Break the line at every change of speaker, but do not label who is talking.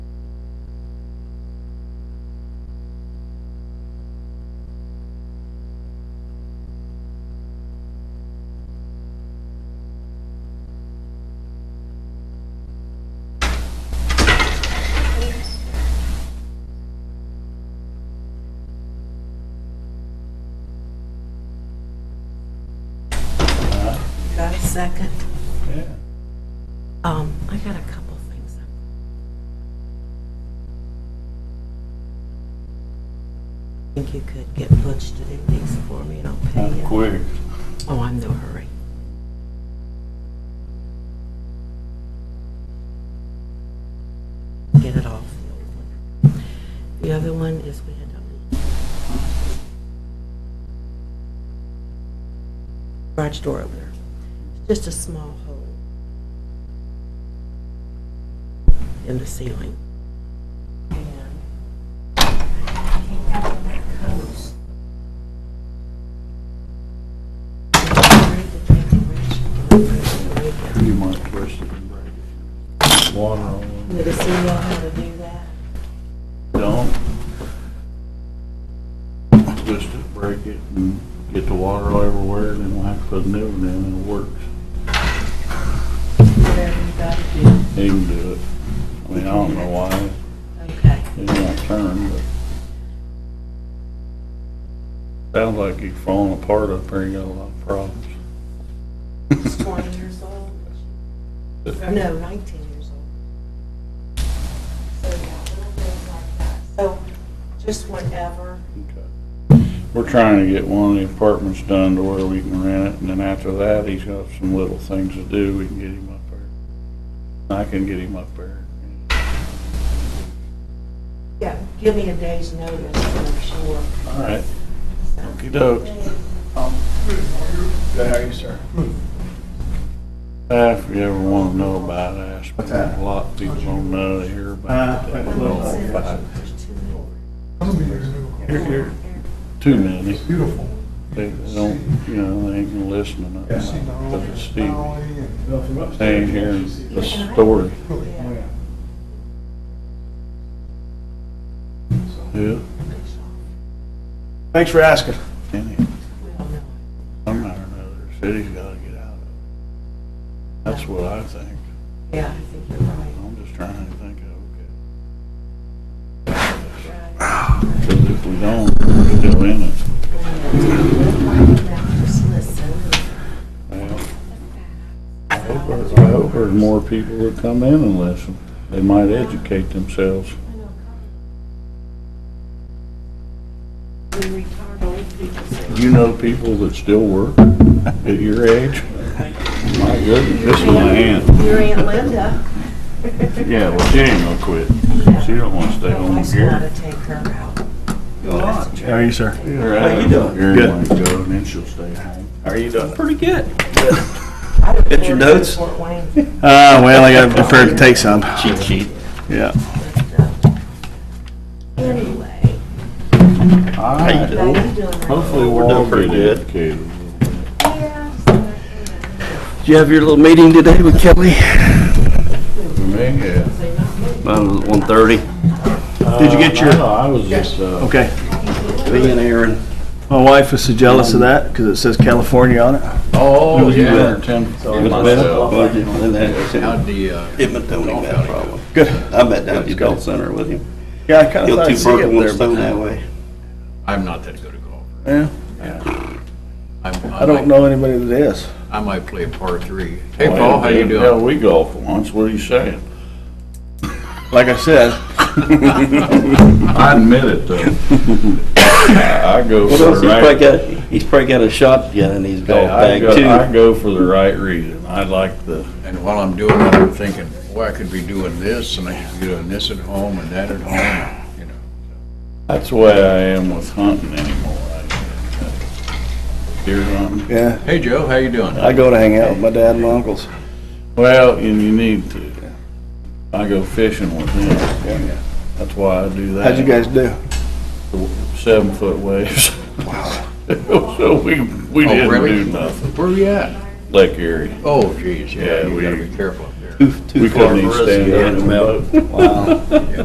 second.
Yeah.
Um, I got a couple things. I Think you could get Butch to do these for me and I'll pay
I'm
you.
quick.
Oh, I'm no hurry. Get it off the old one. The other one is we had a garage door opener. Just a small hole in the ceiling. And uh, came out with that hose.
You might twist it and break it. Water on it.
Never seen y'all how to do that.
Don't. Twist it, break it, and get the water all everywhere, then we'll have to put a new one in, and it works.
Whatever you gotta do.
He can do it. I mean, I don't know why.
Okay.
It won't turn, but. Sounds like he's falling apart up there. You got a lot of problems.
He's 20 years old. Or no, 19 years old. So, yeah, little things like that. So, just whenever.
Okay. We're trying to get one of the apartments done to where we can rent it, and then after that, he's got some little things to do, we can get him up there. I can get him up there.
Yeah, give me a day's notice, I'm sure.
All right,
So,
okey-doke.
Good, how are you, sir?
Uh, If you ever want to know about it,
What's
ask
that?
me. A lot of people don't know to hear about
Uh,
it.
like a little-
All about it.
There's two more.
Here, here. Too many.
It's beautiful.
They don't, you know, they ain't gonna listen to
Yeah.
nothing because it's Stevie. They
Staying
ain't hearing the story.
Yeah.
Oh, Yeah.
Thanks for asking.
Anyhow,
We don't know.
Somehow or another, the city's gotta get out of it. That's what I think.
Yeah, I think you're right.
I'm just trying to think of,
Right.
okay. Because if we don't, we're still in it.
Now, Just listen.
Well, I hope there- I hope there's more people that come in and listen. They might educate themselves.
We retired old people. so-
You know people that still work at your age? My goodness, this is my aunt.
Your Aunt Linda. Oh,
Yeah, well, she ain't gonna quit. She don't wanna stay
My
home
wife's
here.
gotta take her out.
How are you, sir?
How
you doing?
Here,
Good.
wanna go, and then she'll stay home.
How are you doing?
Pretty good.
I would
Get your
go to
notes?
Fort Wayne,
Uh, well, I got prepared to take some.
Cheat sheet.
Yeah.
but, uh, Anyway,
All
you
right.
how you doing?
Hopefully we're
We're
all
doing pretty
getting
good.
educated.
Did you have your little meeting today with Kelly?
For me, yeah.
About Um, one thirty.
Did you get your-
No, I was just, uh,
Okay.
Me and Aaron.
My wife was so jealous of that because it says California on it.
oh,
was you
yeah.
with?
Ten-
And
with
myself.
Bill.
I just- and
uh,
that- Him and Tony had a problem.
Good.
I met down at the adult center with him.
Yeah, I kind of
Killed
thought
two
I'd see
birds
it
with one
there.
stone
but-
that way.
I'm not that good a golfer.
Yeah.
I'm-
I don't
might-
know anybody that is.
I might play a par three. Hey, Paul, how you
Hell,
doing?
we golfed once, what are you saying?
Like I said,
I admit it, though. I go
He's
for the
probably
right,
got, he's probably got a shotgun in his golf
I
bag
go, I
too.
go for the right reason. I like the,
And while I'm doing that, I'm thinking, boy, I could be doing this, and I could be doing this at home and that at home, you know.
that's the way I am with hunting anymore. I- Deer hunting.
yeah,
Hey, Joe, how you doing?
I go to hang out with my dad and my uncles.
Well, and you need to. I go fishing with them. That's why I do that.
How'd you guys do?
Seven foot waves. So we, we
Oh,
didn't
really?
do nothing.
Where are you at?
Lake Erie.
Oh, geez, yeah,
Yeah,
you gotta
we-
be careful up there.
Too- too
We
far
couldn't even
for us to
stand
get
out
in
in
the
the
mountain.
boat.
Wow.